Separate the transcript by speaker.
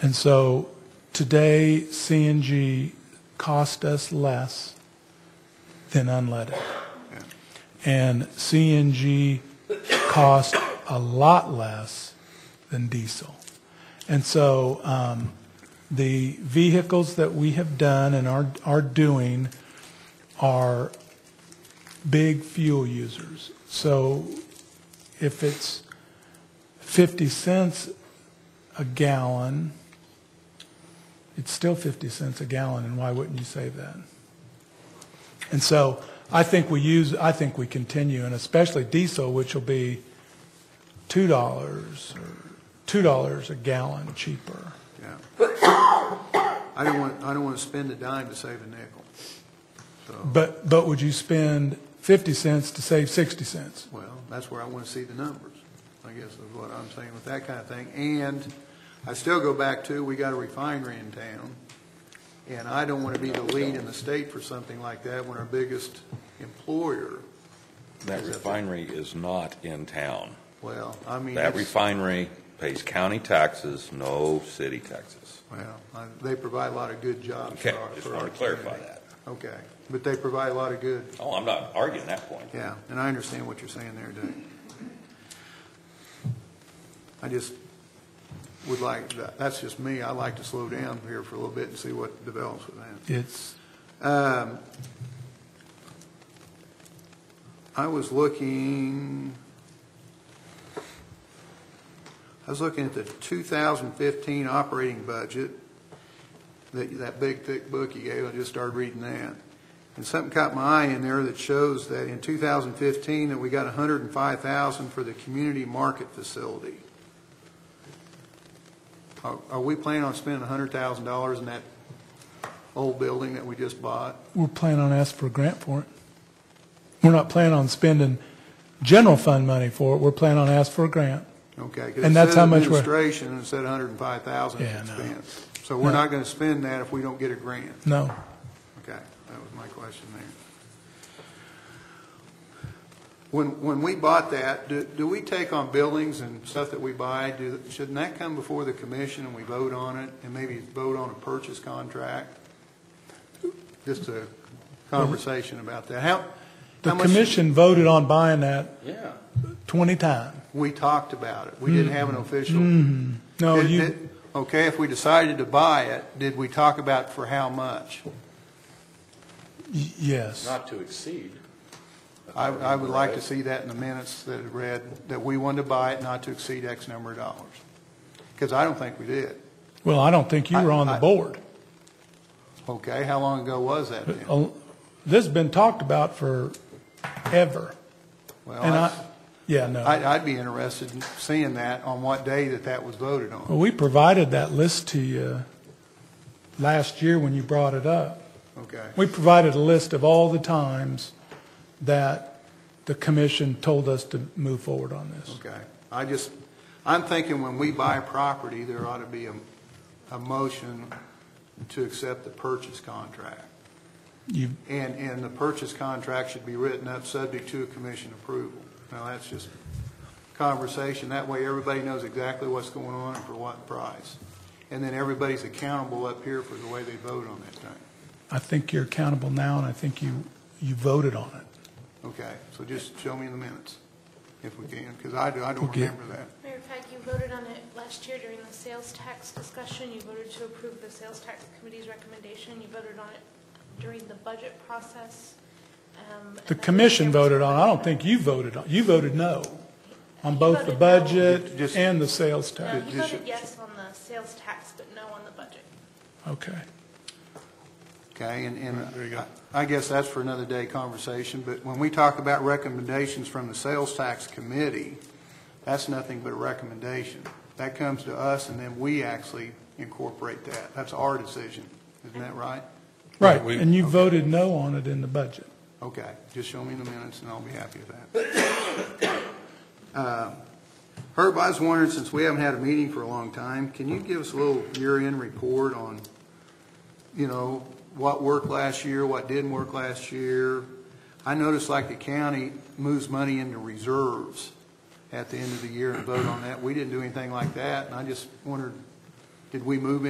Speaker 1: And so today, CNG cost us less than unleaded. And CNG cost a lot less than diesel. And so um, the vehicles that we have done and are, are doing are big fuel users. So if it's 50 cents a gallon, it's still 50 cents a gallon, and why wouldn't you save that? And so I think we use, I think we continue, and especially diesel, which will be $2 or $2 a gallon cheaper.
Speaker 2: Yeah. I don't want, I don't want to spend a dime to save a nickel.
Speaker 1: But, but would you spend 50 cents to save 60 cents?
Speaker 2: Well, that's where I want to see the numbers, I guess is what I'm saying with that kind of thing. And I still go back to, we got a refinery in town, and I don't want to be the lead in the state for something like that when our biggest employer,
Speaker 3: That refinery is not in town.
Speaker 2: well, I mean,
Speaker 3: That
Speaker 2: it's-
Speaker 3: refinery pays county taxes, no city taxes.
Speaker 2: well, I- they provide a lot of good jobs
Speaker 3: Okay,
Speaker 2: for our,
Speaker 3: just
Speaker 2: for
Speaker 3: want
Speaker 2: our
Speaker 3: to clarify
Speaker 2: community.
Speaker 3: that.
Speaker 2: Okay, but they provide a lot of good
Speaker 3: Oh, I'm not arguing that point.
Speaker 2: Yeah, and I understand what you're saying there, Doug. I just would like, that's just me, I'd like to slow down here for a little bit and see what develops with that.
Speaker 1: It's,
Speaker 2: Um, I was looking, I was looking at the 2015 operating budget, that, that big thick book you gave, I just started reading that. And something caught my eye in there that shows that in 2015, that we got 105,000 for the community market facility. Are, are we planning on spending $100,000 in that old building that we just bought?
Speaker 1: we're planning on asking for a grant for it. We're not planning on spending general fund money for it, we're planning on asking for a grant.
Speaker 2: Okay.
Speaker 1: And that's how much
Speaker 2: Because
Speaker 1: we're-
Speaker 2: it says administration, and it said 105,000
Speaker 1: Yeah, no.
Speaker 2: expense. So we're
Speaker 1: No.
Speaker 2: not going to spend that if we don't get a grant.
Speaker 1: No.
Speaker 2: Okay, that was my question there. When, when we bought that, do, do we take on buildings and stuff that we buy, do, shouldn't that come before the commission and we vote on it, and maybe vote on a purchase contract? Just a conversation about that. How,
Speaker 1: The
Speaker 2: how much?
Speaker 1: commission voted on buying that
Speaker 3: Yeah.
Speaker 1: 20 times.
Speaker 2: We talked about it, we
Speaker 1: Mm.
Speaker 2: didn't have an official.
Speaker 1: Mm-hmm. Hmm. No,
Speaker 2: Did-
Speaker 1: you,
Speaker 2: did- Okay, if we decided to buy it, did we talk about for how much?
Speaker 1: y- yes.
Speaker 4: Not to exceed.
Speaker 2: I, I would like to see that in the minutes that it read, that we wanted to buy it not to exceed X number of dollars. Because I don't think we did.
Speaker 1: Well, I don't think you were on the
Speaker 2: I- I-
Speaker 1: board.
Speaker 2: Okay, how long ago was that then?
Speaker 1: Uh, This has been talked about forever.
Speaker 2: Well,
Speaker 1: And I,
Speaker 2: I,
Speaker 1: yeah, no.
Speaker 2: I'd- I'd be interested in seeing that, on what day that that was voted on.
Speaker 1: Well, we provided that list to you uh, last year when you brought it up.
Speaker 2: Okay,
Speaker 1: We provided a list of all the times that the commission told us to move forward on this.
Speaker 2: okay. I just, I'm thinking when we buy property, there ought to be a, a motion to accept the purchase contract.
Speaker 1: You,
Speaker 2: And, and the purchase contract should be written up subject to commission approval. Now, that's just conversation, that way everybody knows exactly what's going on and for what price. And then everybody's accountable up here for the way they vote on that thing.
Speaker 1: I think you're accountable now, and I think you, you voted on it.
Speaker 2: Okay, so just show me in the minutes, if we can, because I do, I don't
Speaker 1: Okay.
Speaker 2: remember that.
Speaker 5: Matter of fact, you voted on it last year during the sales tax discussion. You voted to approve the sales tax committee's recommendation. You voted on it during the budget process. um, and
Speaker 1: The
Speaker 5: that-
Speaker 1: commission voted on, it. I don't think you voted on, you voted no on both the
Speaker 5: voted no.
Speaker 1: budget
Speaker 2: Just-
Speaker 1: and the sales
Speaker 5: No,
Speaker 1: tax.
Speaker 2: Did-
Speaker 5: you
Speaker 2: did
Speaker 5: voted
Speaker 2: you-
Speaker 5: yes on the sales tax, but no on the budget.
Speaker 1: Okay.
Speaker 2: Okay, and, and I guess that's for another day conversation, but when we talk about recommendations from the sales tax committee, that's nothing but a recommendation. That comes to us, and then we actually incorporate that. That's our decision, isn't that right?
Speaker 1: Right, and you voted no on it in the budget.
Speaker 2: Okay, just show me the minutes, and I'll be happy with that. Uh, Herb, I was wondering, since we haven't had a meeting for a long time, can you give us a little year-end report on, you know, what worked last year, what didn't work last year? I noticed like the county moves money into reserves at the end of the year and vote on that. We didn't do anything like that, and I just wondered Did we move